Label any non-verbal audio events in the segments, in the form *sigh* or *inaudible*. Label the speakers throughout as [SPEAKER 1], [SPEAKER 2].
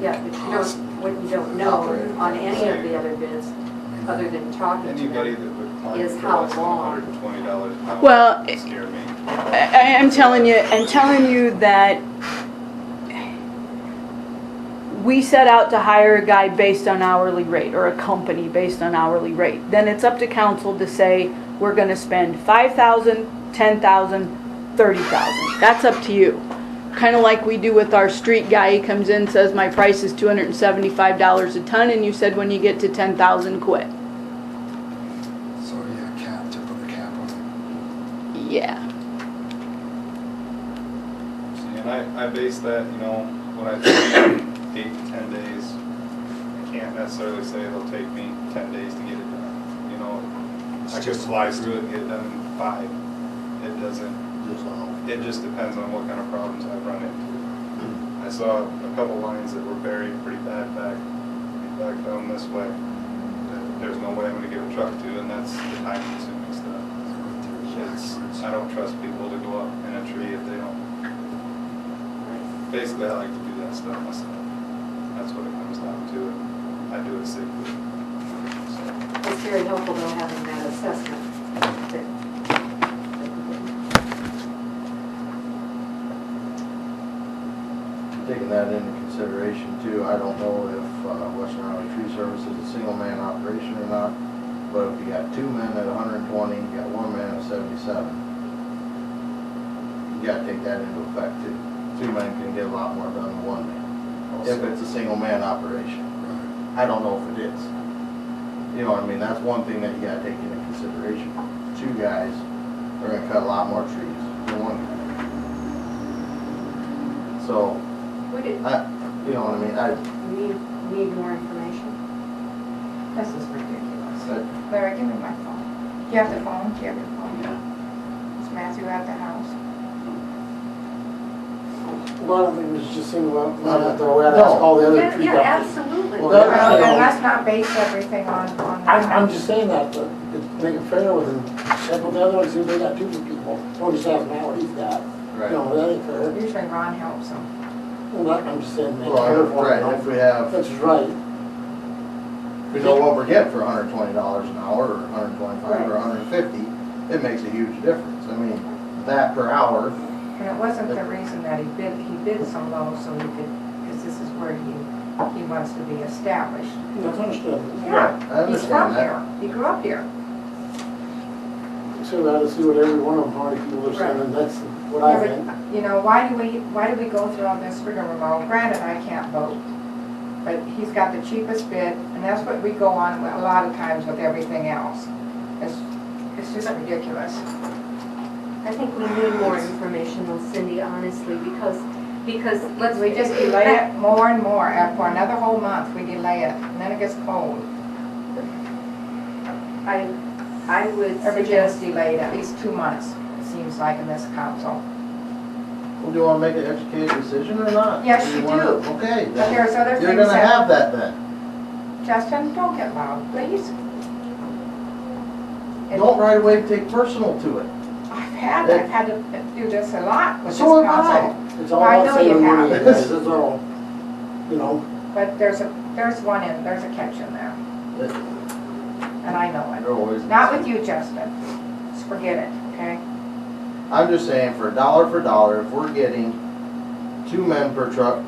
[SPEAKER 1] Yeah, but you don't, what you don't know
[SPEAKER 2] Operator.
[SPEAKER 1] on any of the other bids, other than talking to
[SPEAKER 2] Anybody
[SPEAKER 1] them.
[SPEAKER 2] that would climb
[SPEAKER 1] Is
[SPEAKER 2] for
[SPEAKER 1] how
[SPEAKER 2] less than
[SPEAKER 1] long?
[SPEAKER 2] hundred and twenty dollars an hour
[SPEAKER 3] Well,
[SPEAKER 2] would scare me.
[SPEAKER 3] I, I'm telling you, I'm telling you that we set out to hire a guy based on hourly rate or a company based on hourly rate. Then it's up to council to say, we're gonna spend five thousand, ten thousand, thirty thousand. That's up to you. Kinda like we do with our street guy, he comes in, says, my price is two hundred and seventy-five dollars a ton, and you said when you get to ten thousand, quit.
[SPEAKER 4] So yeah, cap, to put a cap on
[SPEAKER 3] Yeah.
[SPEAKER 2] See, And I, I base that, you know, when I think *coughs* eight to ten days, I can't necessarily say it'll take me ten days to get it done. You know, I could fly through it and get it done in five. It doesn't,
[SPEAKER 5] Just uh, all.
[SPEAKER 2] it just depends on what kind of problems I run into. I saw a couple lines that were buried pretty bad back, back down this way. that There's no way I'm gonna get a truck to, and that's the time consuming stuff.
[SPEAKER 4] it. Right there is
[SPEAKER 2] It's,
[SPEAKER 4] backwards.
[SPEAKER 2] I don't trust people to go up in a tree if they don't. Basically, I like to do that stuff myself. That's what it comes down to, and I do it safely. So,
[SPEAKER 1] It's very helpful though having that assessment. that-
[SPEAKER 5] Taking that into consideration too, I don't know if uh, Western Iowa Tree Service is a single man operation or not, but if you got two men at hundred and twenty, you got one man at seventy-seven, you gotta take that into effect too. Two men can get a lot more done than one man, if it's a single man operation.
[SPEAKER 4] Right.
[SPEAKER 5] I don't know if it is. You know, what I mean, that's one thing that you gotta take into consideration. Two guys, they're gonna cut a lot more trees than one guy. So,
[SPEAKER 1] Would it
[SPEAKER 5] I, you know what I mean, I,
[SPEAKER 1] need, need more information?
[SPEAKER 6] This is ridiculous.
[SPEAKER 5] I,
[SPEAKER 6] Larry, give me my phone. Do you have the phone? Do you have your phone? Is Matthew at the house?
[SPEAKER 7] A lot of it was just single out, not out the way
[SPEAKER 5] No.
[SPEAKER 7] that's all the other
[SPEAKER 1] Yeah,
[SPEAKER 7] tree
[SPEAKER 1] yeah,
[SPEAKER 7] companies.
[SPEAKER 1] absolutely.
[SPEAKER 5] Well,
[SPEAKER 7] that-
[SPEAKER 6] Well,
[SPEAKER 7] no.
[SPEAKER 6] then let's not base everything on, on.
[SPEAKER 7] I, I'm just saying that, but to make it fair with them, check with the other ones, see if they got two people, twenty thousand an hour, he's got.
[SPEAKER 5] right.
[SPEAKER 7] No, that ain't fair.
[SPEAKER 6] Usually Ron helps him.
[SPEAKER 7] Well, that- I'm just saying, make it
[SPEAKER 5] Well,
[SPEAKER 7] fair for
[SPEAKER 5] right, if
[SPEAKER 7] them.
[SPEAKER 5] we have,
[SPEAKER 7] That's right.
[SPEAKER 5] if we know what we're getting for hundred and twenty dollars an hour, or hundred and twenty-five, or hundred and fifty, it makes a huge difference. I mean, that per hour,
[SPEAKER 6] And it wasn't the reason that he bid, he bid so low so he could, because this is where he, he wants to be established.
[SPEAKER 7] That's understandable.
[SPEAKER 6] Yeah,
[SPEAKER 5] I
[SPEAKER 6] he's from
[SPEAKER 5] understand that.
[SPEAKER 6] here. He grew up here.
[SPEAKER 7] So we ought to see what every one of them, how many people are saying, and that's what I think.
[SPEAKER 6] Yeah, but, You know, why do we, why do we go through all this rigmarole? Granted, I can't vote, but he's got the cheapest bid, and that's what we go on with- a lot of times with everything else. It's, it's just ridiculous.
[SPEAKER 1] I think we need more information though, Cindy, honestly, because, because let's.
[SPEAKER 6] We just delay it more and more, and for another whole month, we delay it, and then it gets cold.
[SPEAKER 1] I, I would
[SPEAKER 6] Everything's
[SPEAKER 1] suggest,
[SPEAKER 6] delayed at least two months, it seems like, in this council.
[SPEAKER 5] Well, do you wanna make an educated decision or not?
[SPEAKER 6] Yes, you
[SPEAKER 5] wanna-
[SPEAKER 6] do.
[SPEAKER 5] Okay, then,
[SPEAKER 6] But there's other
[SPEAKER 5] you're
[SPEAKER 6] things
[SPEAKER 5] gonna
[SPEAKER 6] that,
[SPEAKER 5] have that then.
[SPEAKER 6] Justin, don't get loud, please. It-
[SPEAKER 5] Don't right away take personal to it.
[SPEAKER 6] I've had, I've had to do this a lot with this
[SPEAKER 5] So have I.
[SPEAKER 6] council.
[SPEAKER 7] It's all
[SPEAKER 6] I
[SPEAKER 7] about
[SPEAKER 6] know you
[SPEAKER 7] saving
[SPEAKER 6] have.
[SPEAKER 7] money, guys, that's all. You know,
[SPEAKER 6] But there's a, there's one in, there's a catch in there, and I know
[SPEAKER 5] They're always-
[SPEAKER 6] it. Not with you, Justin. Just forget it, okay?
[SPEAKER 5] I'm just saying, for a dollar for dollar, if we're getting two men per truck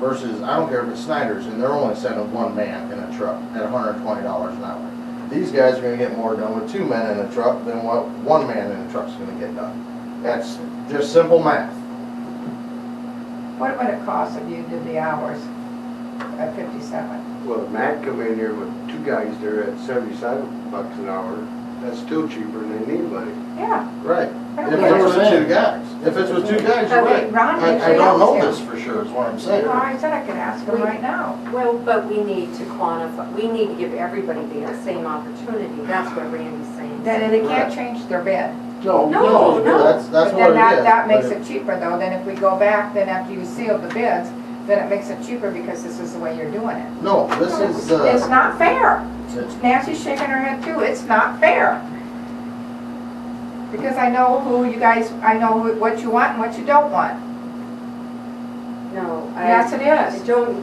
[SPEAKER 5] versus, I don't care if it's Snyder's, and they're only sending one man in a truck at hundred and twenty dollars an hour. These guys are gonna get more done with two men in a truck than what one man in a truck's gonna get done. That's just simple math.
[SPEAKER 6] What would it cost if you did the hours at fifty-seven?
[SPEAKER 8] Well, if Matt come in here with two guys there at seventy-seven bucks an hour, that's still cheaper than anybody.
[SPEAKER 6] Yeah,
[SPEAKER 5] Right.
[SPEAKER 6] I
[SPEAKER 5] If
[SPEAKER 6] don't
[SPEAKER 5] it
[SPEAKER 6] care.
[SPEAKER 5] was two guys, if it was two guys, you're
[SPEAKER 6] Okay,
[SPEAKER 5] right.
[SPEAKER 6] Ron
[SPEAKER 5] I, I
[SPEAKER 6] usually
[SPEAKER 5] don't know this
[SPEAKER 6] helps him.
[SPEAKER 5] for sure, is what I'm saying.
[SPEAKER 6] Well, I said I could ask him right now.
[SPEAKER 1] well, but we need to quantify, we need to give everybody the same opportunity. That's what Randy's saying.
[SPEAKER 6] Then they can't change their bid.
[SPEAKER 7] no,
[SPEAKER 1] No,
[SPEAKER 7] no.
[SPEAKER 1] no.
[SPEAKER 5] That's, that's
[SPEAKER 6] But
[SPEAKER 5] what it
[SPEAKER 6] then
[SPEAKER 5] is.
[SPEAKER 6] that, that
[SPEAKER 5] but
[SPEAKER 6] makes it cheaper though, then if we go back, then after you seal the bids, then it makes it cheaper because this is the way you're doing it.
[SPEAKER 5] No, this is, uh.
[SPEAKER 6] It's not fair.
[SPEAKER 5] it's-
[SPEAKER 6] Nancy's shaking her head too, it's not fair. Because I know who you guys, I know wh- what you want and what you don't want.
[SPEAKER 1] No, I.
[SPEAKER 6] Yes, it is.
[SPEAKER 1] Don't,